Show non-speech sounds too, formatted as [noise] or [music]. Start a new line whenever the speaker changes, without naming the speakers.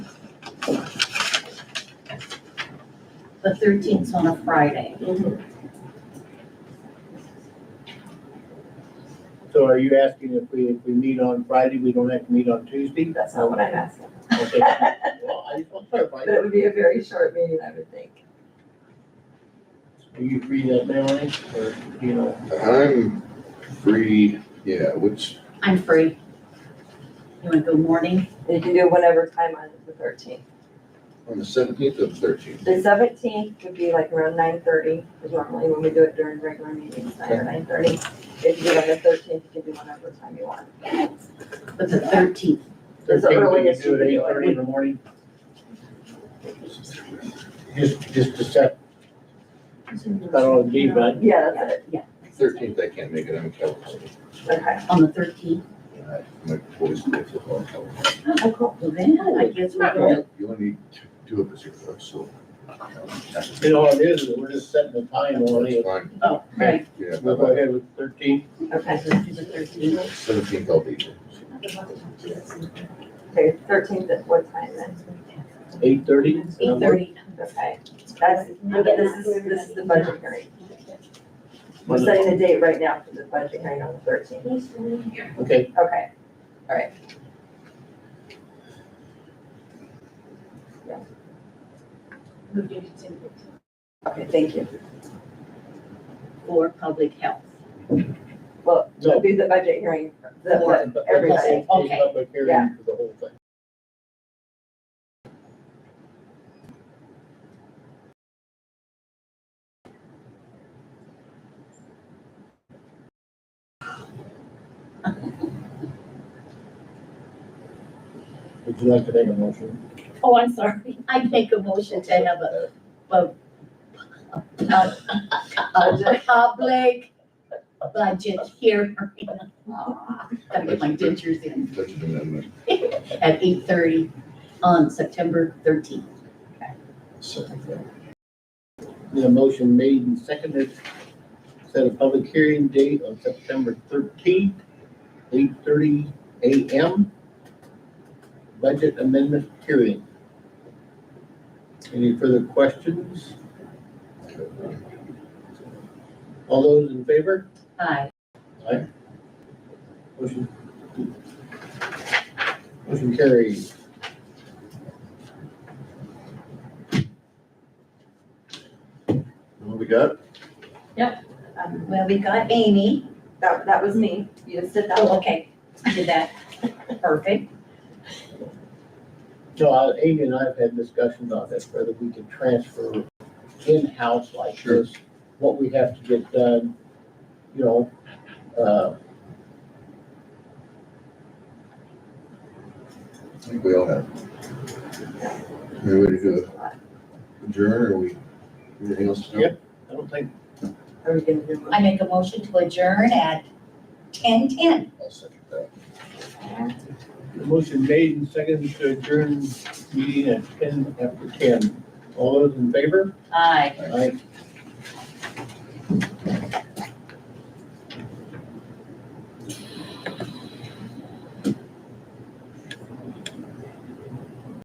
The thirteenth's on a Friday.
So are you asking if we, if we meet on Friday, we don't have to meet on Tuesday?
That's not what I'm [laughs] asking.
Okay. Well, I just want to clarify,
But it would be a very short meeting, I would think.
are you free that day, Lenny, or, you know?
I'm free, yeah, which,
I'm free. You wanna go morning?
You can do whatever time on the thirteenth.
on the seventeenth or the thirteenth?
The seventeenth would be like around nine thirty, is normally when we do it during regular meetings, nine or nine thirty. If you do it on the thirteenth, you can do whatever time you want.
But the thirteenth,
It's the
13th, we can
earliest
Do
you
it
can
eight
do
thirty in
it.
the morning, just, just to set, that all be, but
Yeah, that's it,
Thirteenth, I can't make it, I'm in California.
okay.
on the thirteenth,
I- My boys play football in California.
Oh, cool.
well then, I guess we're gonna,
Well, You only need two of us here, though, so. That's
you know, what it is, is we're just setting the time on it.
fine,
oh, right.
yeah,
We'll go ahead with thirteen,
Okay,
Let's do the thirteenth.
seventeenth I'll be here.
okay, thirteenth at what time then?
eight thirty?
Eight thirty.
Okay, that's, this is, this is the budget hearing. We're setting the date right now for the budget hearing on the thirteenth.
Okay,
Okay, okay, thank you.
For public health.
Well,
No.
it'll be the budget hearing, the-
Or-
the, everybody.
Okay.
Public
Yeah.
hearing for the whole thing. Would you like to make a motion?
Oh, I'm sorry. I make a motion to have a, a, a public budget hearing. Gotta get my dentures in
Budget amendment,
at eight thirty on September thirteenth.
second thing.
The motion made and seconded, set a public hearing date of September thirteenth, eight thirty AM. Budget amendment hearing. Any further questions? All those in favor?
Aye.
Motion. Motion carries.
What we got?
Um,
Well, we got Amy.
That, that was me, you just did that
Oh,
one.
okay. Did that. Perfect.
So uh, Amy and I have had discussions on this, whether we can transfer in-house like
Sure.
this, what we have to get done, you know, uh,
I think we all have. Any way to do it? Adjourn, or we, anything else to do?
Yep. I don't think,
Are we gonna do one?
I make a motion to adjourn at ten ten.
I'll second that.
the motion made and seconded to adjourn meeting at ten after ten. All those in favor?
Aye.
Aye.